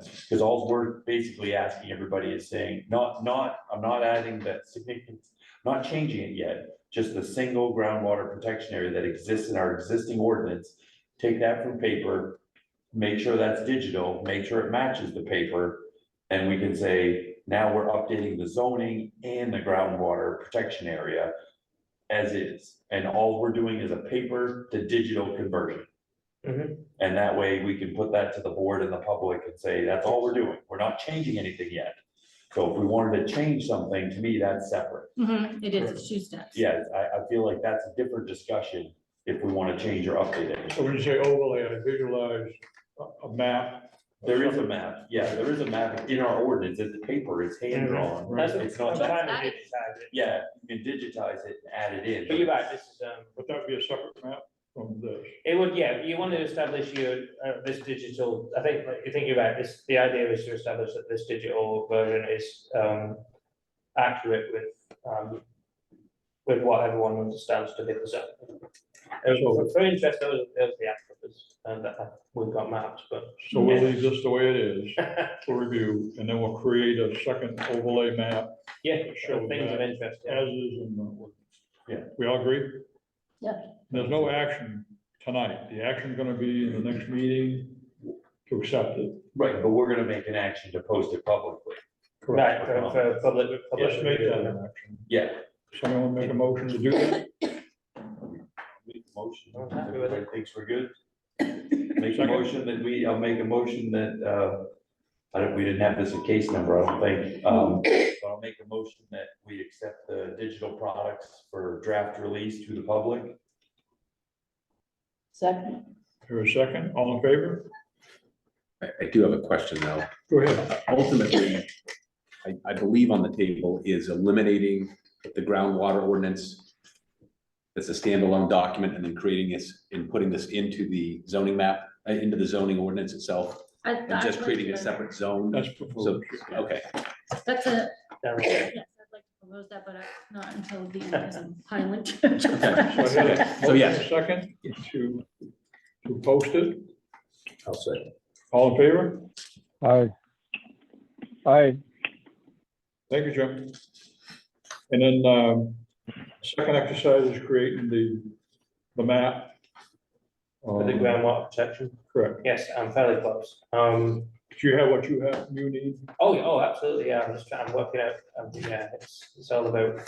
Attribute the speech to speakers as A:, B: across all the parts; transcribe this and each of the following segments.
A: Because all we're basically asking everybody is saying, not, not, I'm not adding that significant, not changing it yet. Just the single groundwater protection area that exists in our existing ordinance. Take that from paper, make sure that's digital, make sure it matches the paper. And we can say, now we're updating the zoning and the groundwater protection area as is. And all we're doing is a paper to digital conversion.
B: Mhm.
A: And that way we can put that to the board and the public and say, that's all we're doing. We're not changing anything yet. So if we wanted to change something, to me, that's separate.
C: Mhm, It is, it's two steps.
A: Yeah, I, I feel like that's a different discussion if we want to change or update it.
B: So when you say overlay, I visualize a, a map. of
A: There is a
B: something.
A: map, yeah, there is a map in our ordinance, it's paper, it's hand drawn.
B: Right.
A: It's not,
C: I'm trying-
A: yeah, you can digitize it and add it in.
D: But you're right, this is, um,
B: Would that be a separate map from this?
D: it would, yeah, you want to establish your, uh, this digital, I think, like, you think about this, the idea is to establish that this digital version is, um, accurate with, um, with what everyone understands to be the zone. It was very interesting, that was, that was the applicants, and that, that we've got maps, but.
B: So we'll leave this the way it is for review, and then we'll create a second overlay map
D: Yeah,
B: Show
D: sure, things of
B: that
D: interest, yeah.
B: as is in the ordinance.
A: Yeah.
B: We all agree?
C: Yeah.
B: There's no action tonight. The action gonna be in the next meeting to accept it.
A: Right, but we're gonna make an action to post it publicly.
D: Right, for, for public, public.
B: Let's make that
D: review.
B: an action.
A: Yeah.
B: Someone wanna make a motion to do that?
A: Make a Motion,
D: I'm happy with it.
A: everybody thinks we're good. Make a motion that we, I'll make a motion that, uh, I don't, we didn't have this a case number, I don't think. Um, but I'll make a motion that we accept the digital products for draft release to the public.
C: Second.
B: Here a second, all in favor?
E: I, I do have a question though.
B: Go ahead.
E: Ultimately, I, I believe on the table is eliminating the groundwater ordinance. That's a standalone document and then creating this and putting this into the zoning map, uh, into the zoning ordinance itself.
C: I-
E: And just
C: I'd like
E: creating a
C: to-
E: separate zone.
B: That's proposed.
E: Okay,
C: That's a,
D: Down there.
C: yes, I'd like to propose that, but I- not until the end as a pilot.
B: So I had a
E: So, yes.
B: motion Second, to, to post it,
E: I'll say.
B: all in favor?
F: Aye. Aye,
B: Thank you, Jim. And then, um, second exercise is creating the, the map.
D: For the
B: Um,
D: groundwater protection,
B: Correct.
D: yes, I'm fairly close, um.
B: Do you have what you have, you need?
D: Oh, yeah, oh, absolutely, yeah, I'm just trying, I'm working out, um, yeah, it's, it's all about.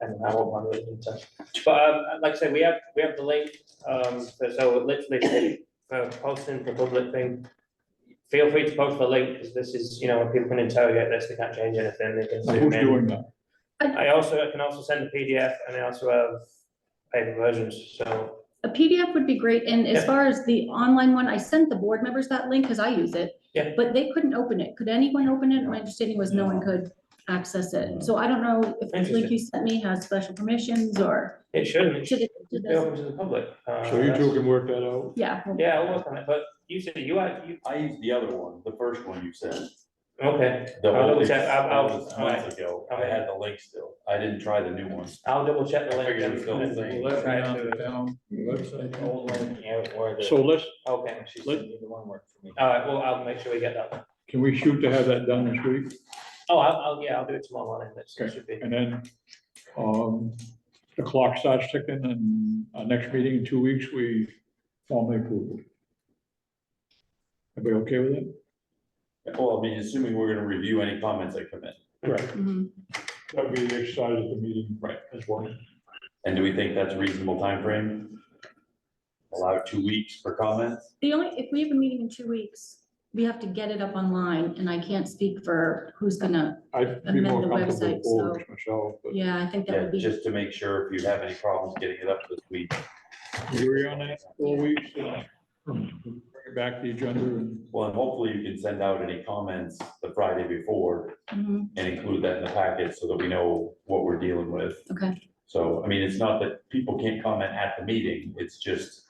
D: And I want my religion to, but, um, like I say, we have, we have the link, um, so- so literally, for posting for public thing. Feel free to post the link, because this is, you know, when people can interrogate this, they can't change anything, they can. zoom
B: Who's
D: in.
B: doing that?
D: I also, I can also send a PDF, and I also have paper versions, so,
C: A PDF would be great, and as
D: Yeah.
C: far as the online one, I sent the board members that link, because I use it.
D: Yeah.
C: But they couldn't open it, could anyone open it? My understanding was no one could access it, so I don't know if the link
D: Interesting.
C: you sent me has special permissions or.
D: it shouldn't, it
C: to
D: should
C: the- to
D: be
C: the-
D: open to the public. uh,
B: So you two
D: that's-
B: can work that out.
C: Yeah, well,
D: Yeah, I'll work on it, but you said you, had- you,
A: I used the other one, the first one you sent.
D: okay.
A: The
D: I'll double
A: old-
D: check. I'll- I'll-
A: that was Months ago, I had the link still, I didn't try the new one.
D: I'll double check the
A: I
D: link.
A: figured it was still the same.
D: We'll try to-
B: So let's,
D: Okay.
B: let-
D: All right, well, I'll make sure we get that. one.
B: can we shoot to have that done this week?
D: Oh, I'll, I'll, yeah, I'll do it tomorrow morning. That's, that should be,
B: And then, um, the clock starts ticking and our next meeting in two weeks, we formally approve it. Everybody okay with it?
A: Well, I mean, assuming we're gonna review any comments that come in.
B: Correct.
C: mhm.
B: That'd be the exercise of the meeting.
A: Right.
B: As well.
A: And do we think that's a reasonable time frame? Allow two weeks for comments?
C: The only, if we have a meeting in two weeks, we have to get it up online, and I can't speak for who's gonna,
B: I'd be more
C: Amend the
B: comfortable
C: website,
B: with forwards myself, but
C: yeah, I think that
A: Yeah,
C: would be,
A: just to make sure if you have any problems getting it up this week.
B: you agree on that, four weeks, uh, bring it back the agenda and.
A: Well, and hopefully you can send out any comments the Friday before
C: Mhm,
A: and include that in the packet so that we know what we're dealing with.
C: okay,
A: So, I mean, it's not that people can't comment at the meeting, it's just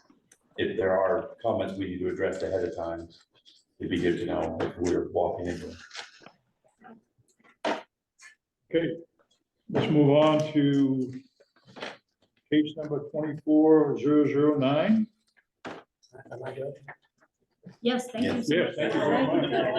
A: if there are comments we need to address ahead of time, it'd be good to know if we're walking into it.
B: Okay, let's move on to case number twenty-four zero zero nine.
D: am I good?
C: yes, thank you. so
B: Yes,
C: much.
B: thank you very much.